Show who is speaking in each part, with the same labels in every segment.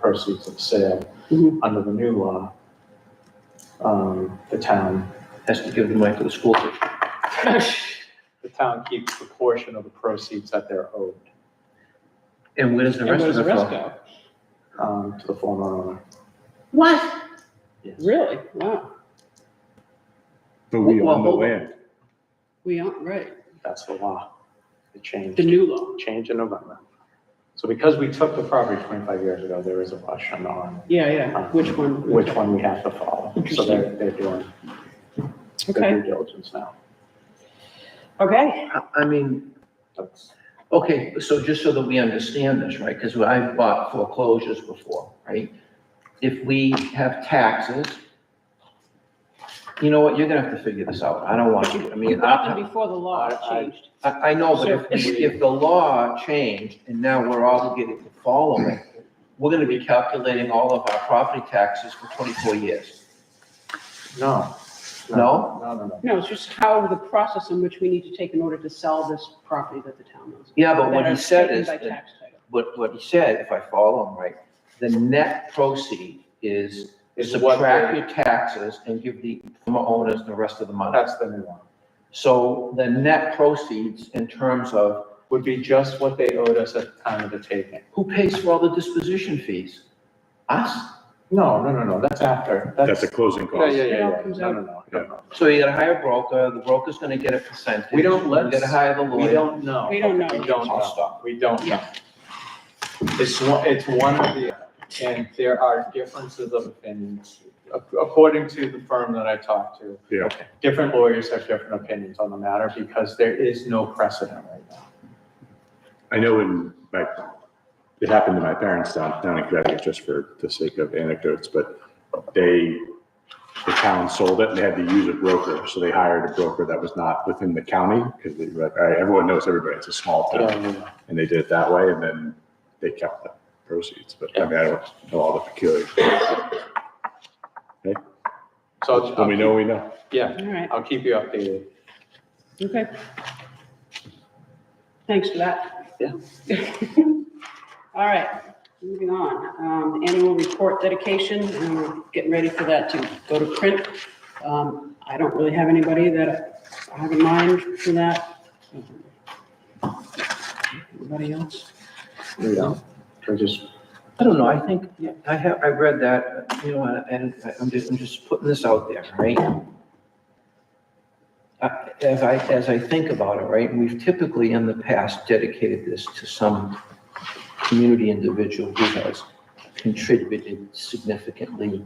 Speaker 1: proceeds of sale
Speaker 2: Mhm.
Speaker 1: under the new law, um, the town,
Speaker 3: Has to give the money to the school district.
Speaker 1: the town keeps the portion of the proceeds that they're owed
Speaker 3: And where does the
Speaker 2: And
Speaker 3: rest
Speaker 2: where's
Speaker 3: of
Speaker 2: the
Speaker 3: it
Speaker 2: rest
Speaker 3: go?
Speaker 2: go?
Speaker 1: um, to the former owner.
Speaker 2: What?
Speaker 1: Yes.
Speaker 2: Really? Wow.
Speaker 4: But we
Speaker 3: Well,
Speaker 4: own the
Speaker 3: hold on.
Speaker 4: land.
Speaker 2: We aren't, right.
Speaker 1: That's the law. It changed.
Speaker 2: The new law.
Speaker 1: change in November. So because we took the property 25 years ago, there is a question on
Speaker 2: Yeah, yeah.
Speaker 4: Uh,
Speaker 2: Which one?
Speaker 1: which one we have to follow. So they're, they're doing their
Speaker 2: Okay.
Speaker 1: due diligence now.
Speaker 2: Okay.
Speaker 3: I- I mean,
Speaker 1: That's-
Speaker 3: okay, so just so that we understand this, right, because I've bought foreclosures before, right? If we have taxes, you know what, you're gonna have to figure this out. I don't want to, I mean, I,
Speaker 2: And before the law changed.
Speaker 3: I, I know, but if,
Speaker 1: So-
Speaker 3: if the law changed and now we're obligated to follow it, we're gonna be calculating all of our property taxes for twenty-four years.
Speaker 1: No.
Speaker 3: No?
Speaker 1: No, no, no.
Speaker 2: No, it's just how the process in which we need to take in order to sell this property that the town owns.
Speaker 3: Yeah, but what
Speaker 2: That
Speaker 3: he
Speaker 2: are
Speaker 3: said
Speaker 2: taken
Speaker 3: is,
Speaker 2: by
Speaker 3: that-
Speaker 2: tax title.
Speaker 3: what, what he said, if I follow him right, the net proceed is
Speaker 1: Is what
Speaker 3: subtract your taxes and give the former owners the rest of the money.
Speaker 1: That's the new one.
Speaker 3: So the net proceeds in terms of
Speaker 1: Would be just what they owed us at the time of the taking.
Speaker 3: who pays for all the disposition fees? Us.
Speaker 1: No, no, no, no, that's after.
Speaker 4: That's a closing
Speaker 1: Yeah,
Speaker 4: cost.
Speaker 1: yeah, yeah,
Speaker 2: It all
Speaker 1: yeah.
Speaker 2: comes
Speaker 1: No,
Speaker 2: out.
Speaker 1: no, no, no, no.
Speaker 3: So you gotta hire a broker, the broker's gonna get a percentage.
Speaker 1: We don't let-
Speaker 3: You gotta hire the
Speaker 1: We
Speaker 3: lawyer.
Speaker 1: don't know.
Speaker 2: We don't know.
Speaker 1: We don't
Speaker 3: I'll
Speaker 1: know.
Speaker 3: stop.
Speaker 1: We don't know.
Speaker 2: Yeah.
Speaker 1: It's one, it's one of the, and there are differences of opinions. Ac- According to the firm that I talked to,
Speaker 4: Yeah.
Speaker 1: different lawyers have different opinions on the matter because there is no precedent right now.
Speaker 4: I know in my, it happened to my parents down, down in Connecticut, just for the sake of anecdotes, but they, the town sold it and they had to use a broker. So they hired a broker that was not within the county because they were like, all right, everyone knows everybody. It's a small town. And they did it that way and then they kept the proceeds. But I mean, I don't know all the peculiars.
Speaker 1: So. I'll-
Speaker 4: When we know, we know.
Speaker 1: Yeah,
Speaker 2: All right.
Speaker 1: I'll keep you updated.
Speaker 2: Okay. Thanks for that.
Speaker 1: Yeah.
Speaker 2: All right, moving on. Um, annual report dedication, and we're getting ready for that to go to print. Um, I don't really have anybody that I have in mind for that. Anybody else?
Speaker 1: We don't. We're just,
Speaker 3: I don't know, I think, I have, I read that, you know, and and I'm just, I'm just putting this out there, right? I- As I, as I think about it, right, we've typically in the past dedicated this to some community individual who has contributed significantly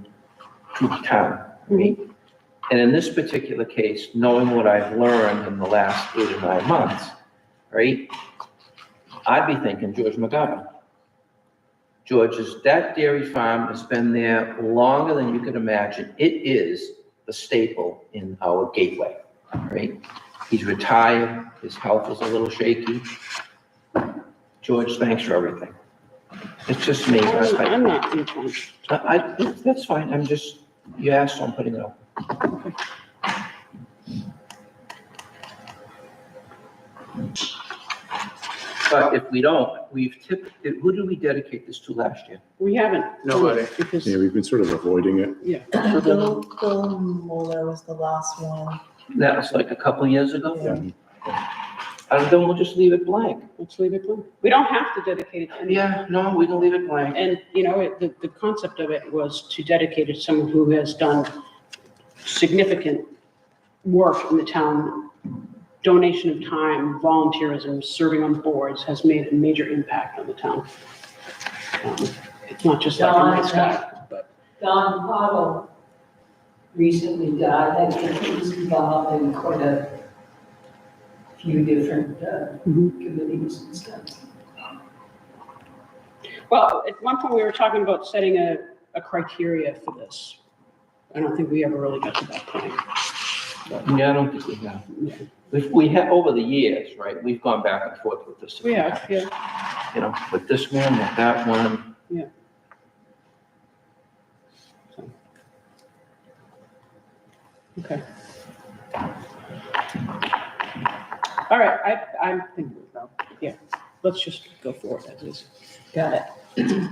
Speaker 3: to the town, right? And in this particular case, knowing what I've learned in the last eight or nine months, right? I'd be thinking George McGovern. George's, that dairy farm has been there longer than you could imagine. It is the staple in our gateway, right? He's retired, his health is a little shaky. George, thanks for everything. It's just me.
Speaker 2: I'm
Speaker 3: I-
Speaker 2: I'm not in front.
Speaker 3: I, I- that's fine, I'm just, you asked, so I'm putting it up. But if we don't, we've tipped, who did we dedicate this to last year?
Speaker 2: We haven't.
Speaker 1: Nobody.
Speaker 2: Because,
Speaker 4: Yeah, we've been sort of avoiding it.
Speaker 2: yeah,
Speaker 5: Bill, Bill Mueller was the last one.
Speaker 3: That was like a couple of years ago?
Speaker 5: Yeah.
Speaker 3: And then we'll just leave it blank.
Speaker 2: let's leave it blank. We don't have to dedicate it to anyone.
Speaker 3: Yeah, no, we can leave it blank.
Speaker 2: And, you know, it- the, the concept of it was to dedicate it to someone who has done significant work in the town, donation of time, volunteerism, serving on boards, has made a major impact on the town. Um, It's not just like a nice guy, but,
Speaker 6: Don Pottle recently died, I think he was involved in quite a few different uh,
Speaker 2: Mhm.
Speaker 6: committees and stuff.
Speaker 2: well, at one point, we were talking about setting a, a criteria for this. I don't think we ever really got to that point.
Speaker 3: Yeah, I don't think we have.
Speaker 2: Yeah.
Speaker 3: If we have, over the years, right, we've gone back and forth with this.
Speaker 2: We have, yeah,
Speaker 3: You know, with this one, with that one.
Speaker 2: okay. All right, I, I'm thinking about, yeah, let's just go forward as is.
Speaker 5: Got it.